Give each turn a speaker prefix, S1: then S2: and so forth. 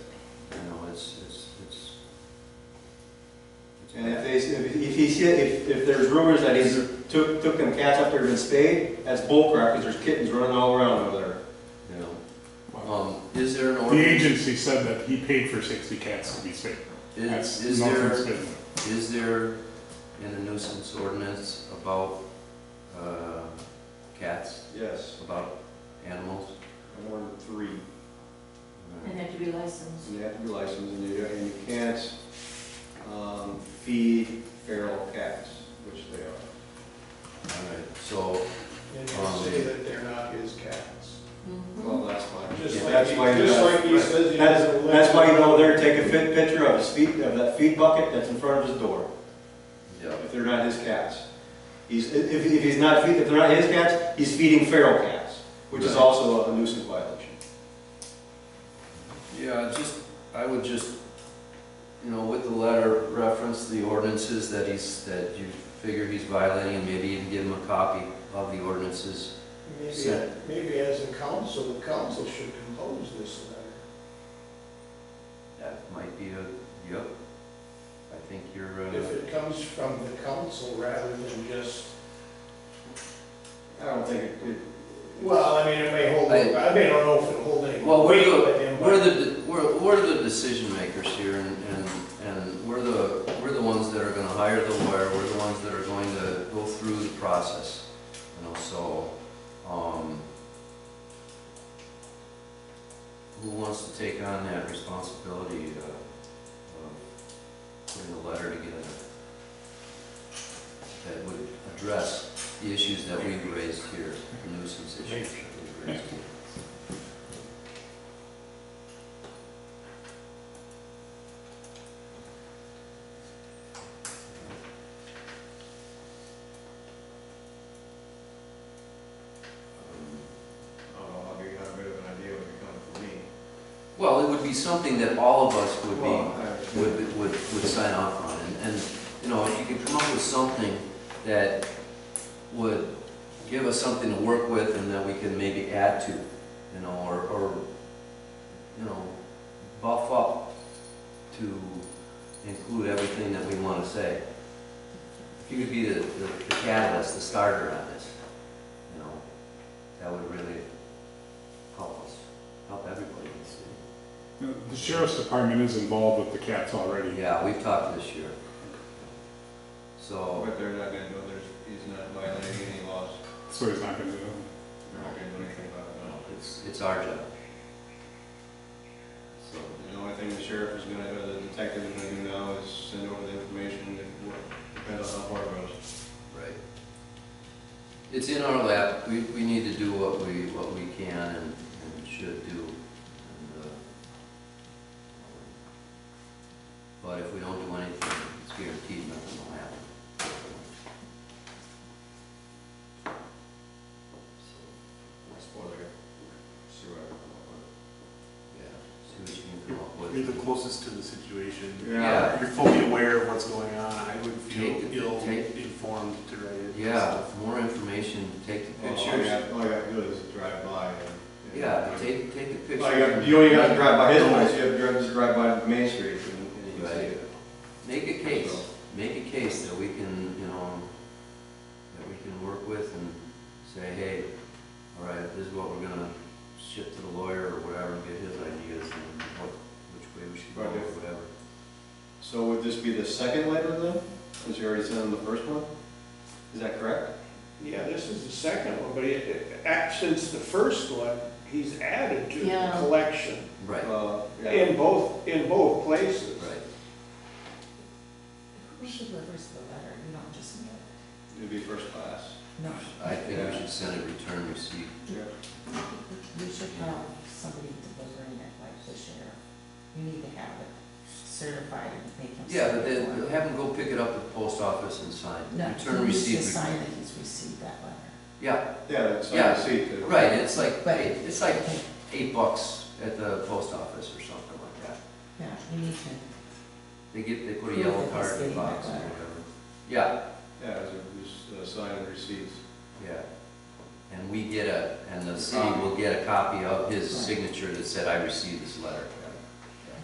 S1: if if he see, if, if there's rumors that he's took, took them cats up there and spayed, that's bullcrap, because there's kittens running all around over there.
S2: you know. Um, is there an
S3: The
S2: ordinance,
S3: agency said that he paid for sixty cats to be spayed.
S2: is,
S3: That's
S2: is
S3: nothing's
S2: there,
S3: been-
S2: is there in the nuisance ordinance about, uh, cats,
S1: Yes,
S2: about animals?
S1: I wanted three,
S2: Uh,
S4: And have to be licensed.
S1: and they have to be licensed, and you, and you can't, um, feed feral cats, which they are.
S2: All right, so,
S5: And you say that they're not his cats.
S2: Mm-hmm.
S1: Well, that's why.
S5: Just like,
S1: that's
S5: he-
S1: why you
S5: just
S1: gotta-
S5: like he says he
S1: That's,
S5: doesn't live.
S1: that's why you go there, take a fit picture of his feet, of that feed bucket that's in front of his door,
S2: yeah,
S1: if they're not his cats. He's, if, if he's not feed, if they're not his cats, he's feeding feral cats, which is
S2: Right.
S1: also a nuisance violation.
S2: yeah, I just, I would just, you know, with the letter, reference the ordinances that he's, that you figure he's violating, and maybe even give him a copy of the ordinances.
S5: Maybe, maybe as a council, the council should compose this letter.
S2: That might be a, yep, I think you're, uh,
S5: If it comes from the council rather than just,
S1: I don't think it, it.
S5: well, I mean, it may hold,
S2: I-
S5: I may not know if it'll hold any
S2: Well, we're
S5: weight,
S2: the-
S5: but it
S2: We're
S5: might.
S2: the, we're, we're the decision makers here and, and, and we're the, we're the ones that are gonna hire the lawyer, we're the ones that are going to go through the process. You know, so, um, who wants to take on that responsibility, uh, of putting a letter together that would address the issues that we've raised here, the nuisance issues that we've raised here? Um,
S1: Oh, I'll give you a bit of an idea when you're coming for me.
S2: Well, it would be something that all of us would be,
S1: Well,
S2: would, would, would sign off on, and, and, you know, if you could come up with something that would give us something to work with and that we can maybe add to, you know, or, or, you know, buff up to include everything that we wanna say. If you could be the, the the catalyst, the starter on this, you know, that would really help us, help everybody in the city.
S3: The sheriff's department is involved with the cats already.
S2: Yeah, we've talked this year. So,
S1: But they're not gonna do it, there's, he's not violating any laws,
S3: So he's not gonna do it.
S1: they're not gonna do anything about it, no.
S2: it's, it's our job. So,
S1: And the only thing the sheriff is gonna, or the detective is gonna do now is send over the information, and work. depends on how far it goes.
S2: right. It's in our lap, we, we need to do what we, what we can and, and should do. And, uh, But if we don't do anything, it's guaranteed nothing will happen. So,
S1: That's what they're, see what I can come
S2: Yeah, see what you can come up with.
S6: You're the closest to the situation.
S2: Yeah.
S6: You're fully aware of what's going on. I would feel
S2: Take- take-
S6: ill-informed to write it.
S2: Yeah, more information, take the
S1: up with. All you
S2: pictures.
S1: have- Oh, All you have to do is drive by and. and-
S2: Yeah, take, take the pictures.
S1: Well, you got, you only got to drive by his place, you have to drive- just drive by Main Street and and you can see it.
S2: Make a case, make a case that we can, you know, that we can work with and say, hey, all right, this is what we're gonna ship to the lawyer or whatever, and get his ideas and what, which way we should go or
S1: Right.
S2: whatever.
S1: So would this be the second letter then, since you already sent him the first one? Is that correct?
S5: Yeah, this is the second one, but it, it, act- since the first one, he's added to the
S4: Yeah.
S5: collection
S2: Right,
S1: Uh, yeah.
S5: in both, in both places.
S2: right.
S4: Who delivers the letter, not just me?
S1: It'd be first class.
S4: No,
S2: I think we should send a return receipt.
S1: Yeah.
S4: we should have somebody delivering it, like the sheriff. You need to have it certified and make him.
S2: Yeah, but
S4: sign
S2: then
S4: it.
S2: have them go pick it up at the post office and sign.
S4: No,
S2: Return
S4: he needs to
S2: receipt.
S4: sign that he's received that letter.
S2: Yeah,
S1: Yeah, that's
S2: Yeah.
S1: I see too.
S2: Right, it's like,
S4: But-
S2: eight- it's like eight bucks at the post office or something like that.
S4: Yeah, you need to,
S2: They get, they put a
S4: Prove
S2: yellow
S4: that he's
S2: card in the
S4: getting
S2: box or
S4: that letter.
S2: whatever. Yeah,
S1: Yeah, it's a- it's a sign and receipts.
S2: yeah.
S4: Um,
S2: And we get a, and the city will get a copy of his signature that said, I received this letter.